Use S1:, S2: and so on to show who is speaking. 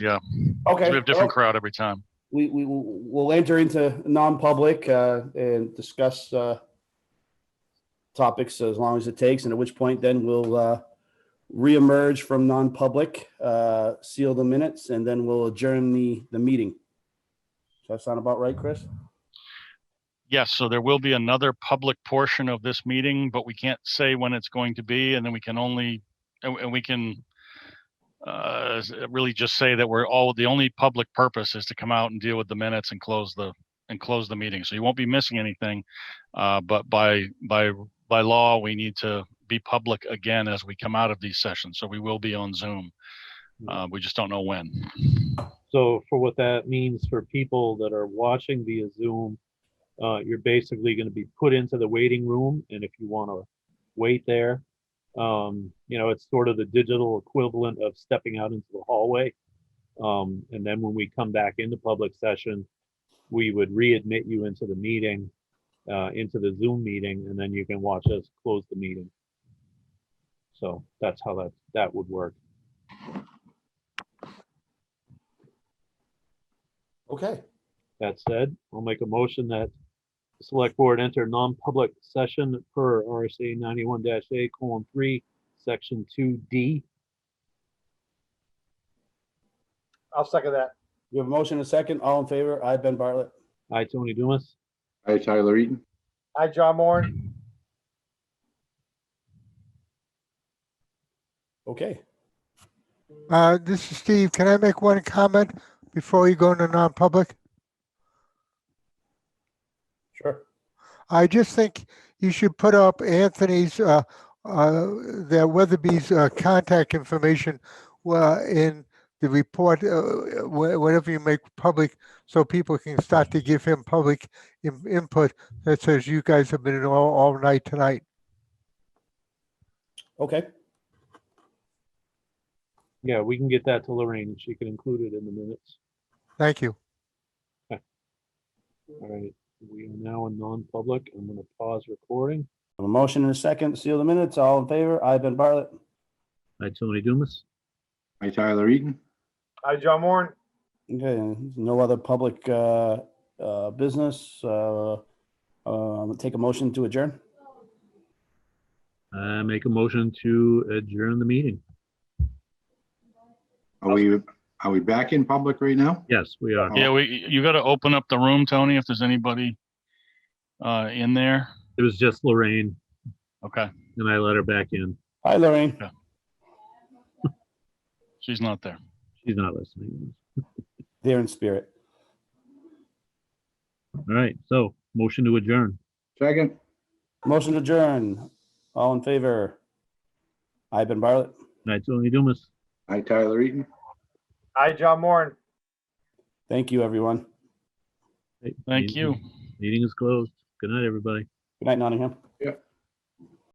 S1: Yeah.
S2: Okay.
S1: We have
S2: well,
S1: different crowd every time.
S2: We, we will we'll enter into non-public uh, and discuss uh, topics as long as it takes, and at which point then we'll uh, reemerge from non-public, uh, seal the minutes, and then we'll adjourn the, the meeting. Does that sound about right, Chris?
S1: Yes, so there will be another public portion of this meeting, but we can't say when it's going to be, and then we can only, and and we can uh, s- really just say that we're all, the only public purpose is to come out and deal with the minutes and close the, and close the meeting. So you won't be missing anything. uh, But by, by, by law, we need to be public again as we come out of these sessions. So we will be on Zoom. Uh, We just don't know when.
S3: So for what that means for people that are watching via Zoom, uh, you're basically gonna be put into the waiting room, and if you wanna wait there, um, you know, it's sort of the digital equivalent of stepping out into the hallway. Um, and then when we come back into public session, we would readmit you into the meeting, uh, into the Zoom meeting, and then you can watch us close the meeting. So that's how that, that would work.
S2: Okay.
S3: That said, I'll make a motion that the select board enter non-public session per RSA ninety-one A colon three, section two D.
S4: I'll second that.
S2: You have a motion and a second. All in favor? I, Ben Bartlett.
S3: Hi, Tony Dumas.
S5: Hi, Tyler Eaton.
S4: Hi, John Moore.
S2: Okay.
S6: Uh, This is Steve. Can I make one comment before you go into non-public?
S2: Sure.
S6: I just think you should put up Anthony's, uh, uh, the Weatherby's uh, contact information uh, in the report, uh, wh- whatever you make public, so people can start to give him public in- input that says you guys have been in all, all night tonight.
S2: Okay.
S3: Yeah, we can get that to Lorraine and she can include it in the minutes.
S6: Thank you.
S3: All right, we are now in non-public. I'm gonna pause recording.
S2: A motion and a second. Seal the minutes. All in favor? I, Ben Bartlett.
S3: Hi, Tony Dumas.
S5: Hi, Tyler Eaton.
S4: Hi, John Moore.
S2: Okay, no other public uh, uh, business. uh, um, Take a motion to adjourn.
S3: I make a motion to adjourn the meeting.
S5: Are we, are we back in public right now?
S3: Yes, we are.
S1: Yeah, we, you got to open up the room, Tony, if there's anybody uh, in there.
S3: It was just Lorraine
S1: Okay,
S3: and I let her back in.
S2: Hi, Lorraine.
S1: she's not there.
S3: She's not listening.
S2: There in spirit.
S3: All right, so motion to adjourn.
S5: Second,
S2: Motion to adjourn. All in favor? I, Ben Bartlett.
S3: Hi, Tony Dumas.
S5: hi, Tyler Eaton.
S4: Hi, John Moore.
S2: Thank you, everyone.
S1: Thank you.
S3: Meeting is closed. Good night, everybody.
S2: Good night, Nottingham.
S5: Yep.